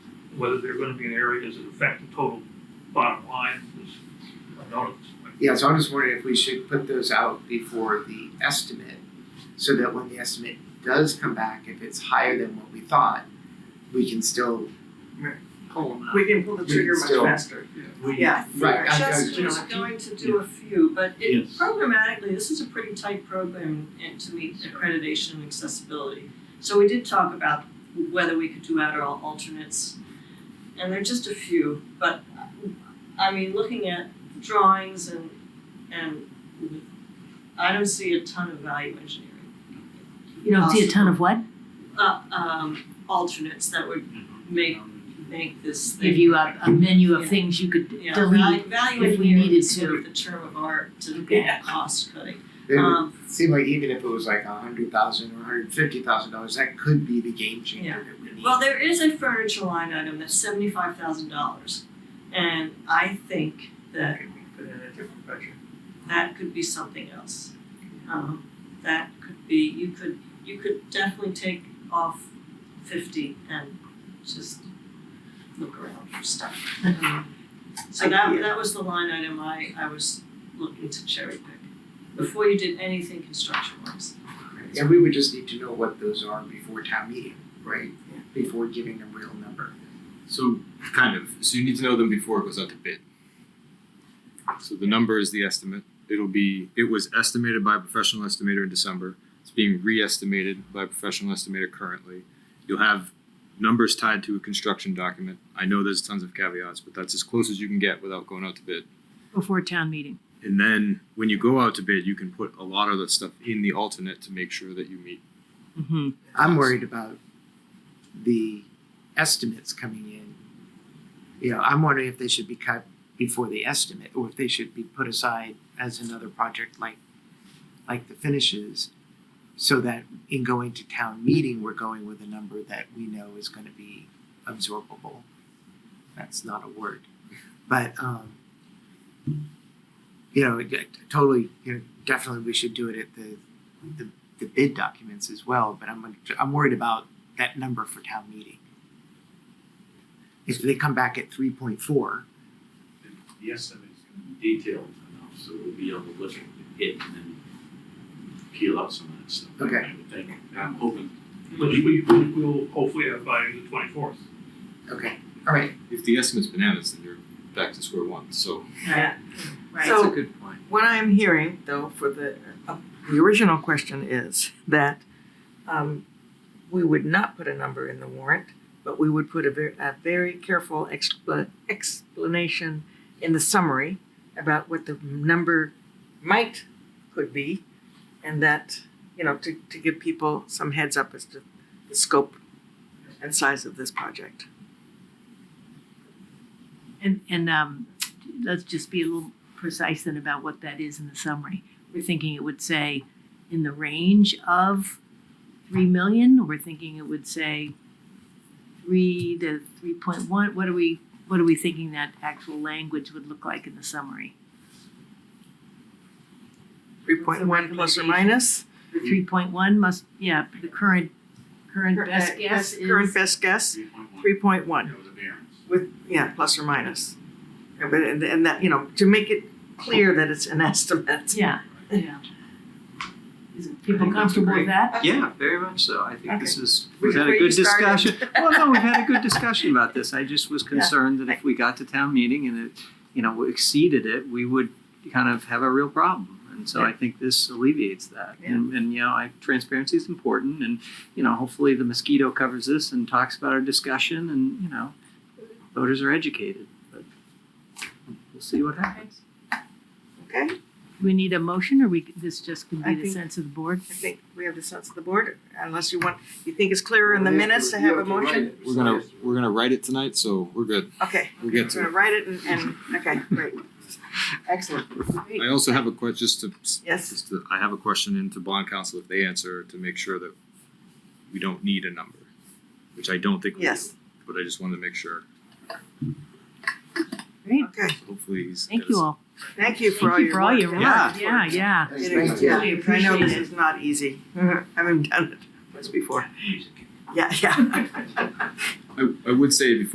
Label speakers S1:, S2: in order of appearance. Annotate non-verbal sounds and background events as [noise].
S1: whether they're gonna be in areas that affect the total bottom line is unknown at this point.
S2: Yeah, so I'm just wondering if we should put those out before the estimate, so that when the estimate does come back, if it's higher than what we thought, we can still
S3: pull them out.
S4: We can pull the
S2: We can
S4: trigger much
S2: still-
S4: faster.
S5: We-
S4: Yeah.
S2: Right, I- I-
S4: Just
S2: just-
S4: was going to do a few, but it
S5: Yes.
S4: programmatically, this is a pretty tight program and to meet accreditation and accessibility. So we did talk about whether we could do Adderall alternates. And there are just a few, but uh, I mean, looking at drawings and and I don't see a ton of value engineering.
S6: You don't see a ton of what?
S4: Uh um alternates that would make make this thing.
S6: Mm-hmm. Give you a, a menu
S4: Yeah.
S6: of things you could
S4: Yeah,
S6: delete.
S4: value, value
S6: if we
S4: engineering
S6: needed
S4: is sort
S6: to.
S4: of the term of art to
S6: Okay.
S4: get cost cutting.
S2: it would
S4: Um,
S2: seem like even if it was like a hundred thousand or a hundred fifty thousand dollars, that could be the game changer that we need.
S4: well, there is a furniture line item that's seventy-five thousand dollars, and I think that
S1: Can we put in a different budget?
S4: that could be something else. Um, that could be you could you could definitely take off fifty and just look around
S1: [laughs]
S4: for stuff. Um, so that that was the line item I I was looking to cherry pick before you did anything construction wise.
S2: And we would just need to know what those are before town meeting, right?
S4: Yeah.
S2: Before giving a real number.
S7: So kind of. So you need to know them before it goes out to bid. So the number is the estimate. It'll be it was estimated by a professional estimator in December. It's being re-estimated by a professional estimator currently. You'll have numbers tied to a construction document. I know there's tons of caveats, but that's as close as you can get without going out to bid.
S6: Before town meeting.
S7: And then when you go out to bid, you can put a lot of the stuff in the alternate to make sure that you meet
S6: Mm-hmm.
S2: I'm worried about the estimates coming in. You know, I'm wondering if they should be cut before the estimate, or if they should be put aside as another project like, like the finishes. So that in going to town meeting, we're going with a number that we know is gonna be absorbable. That's not a word, but, um, you know, it- totally, you know, definitely we should do it at the, the the bid documents as well, but I'm I'm worried about that number for town meeting. If they come back at three point four,
S5: The estimate is gonna be detailed enough, so we'll be able to look at it and then peel out some of that stuff. I
S2: Okay.
S5: would think. I'm hoping
S1: Which we, we will hopefully have by the twenty-fourth.
S2: okay, all right.
S7: if the estimate's bananas, then you're back to square one. So
S4: Yeah. Right.
S3: So-
S4: So
S3: That's a
S5: good point.
S3: What I'm hearing though for the, uh, the original question is that um, we would not put a number in the warrant, but we would put a very, a very careful expla- explanation in the summary about what the number might, could be, and that, you know, to, to give people some heads up as to the scope and size of this project.
S6: And, and, um, let's just be a little precise then about what that is in the summary. We're thinking it would say in the range of three million, we're thinking it would say three to three point one, what are we, what are we thinking that actual language would look like in the summary?
S3: Three point one plus or minus,
S6: The three point one must, yeah, the current, current
S3: Cur-
S6: best
S3: uh,
S6: guess is.
S3: current best guess,
S5: Three point one,
S3: three point one.
S5: that was a variance.
S3: with yeah plus or minus and, but- and, and that you know to make it clear that it's an [laughs] estimate
S6: Yeah, yeah. Is people
S8: think that's
S6: comfortable with
S8: great.
S6: that?
S8: Yeah, very much so. I think this is,
S3: We
S8: we've had a
S3: agree you
S8: good
S3: started.
S8: discussion.
S3: [laughs]
S8: Well, no, we've had a good discussion about this. I just was concerned that if we got to town meeting and it, you know, exceeded it, we would kind of have a real problem. And so I think this alleviates that. And, and, you know, I, transparency is important and, you know, hopefully the mosquito covers this and talks about our discussion and, you know, voters are educated, but we'll see what happens.
S6: Do we need a motion or we, this just can
S3: I
S6: be the
S3: think-
S6: sense of the board?
S3: i think we have the sense of the board unless you want you think it's clearer in the minutes to have a motion
S7: we're gonna we're gonna write it tonight, so we're good.
S3: okay
S7: We'll get
S3: i'm
S7: to
S3: going to write it and, and okay great excellent
S7: it. I also have a question, just to,
S3: yes
S7: just to, I have a question into bond council if they answer to make sure that we don't need a number, which I don't think we do.
S3: Yes.
S7: But I just wanted to make sure.
S6: Great,
S3: okay
S7: Hopefully he's.
S6: thank you all.
S3: thank you for all
S6: Thank you
S3: your
S6: for all
S3: work.
S6: your work,
S8: Yeah.
S6: yeah, yeah.
S3: It
S2: Thank
S3: is,
S2: you.
S3: yeah,
S6: We
S3: because I know this
S6: appreciate
S3: is not easy. I
S6: Mm-hmm.
S3: haven't done it once before. Yeah, yeah.
S7: I I would say before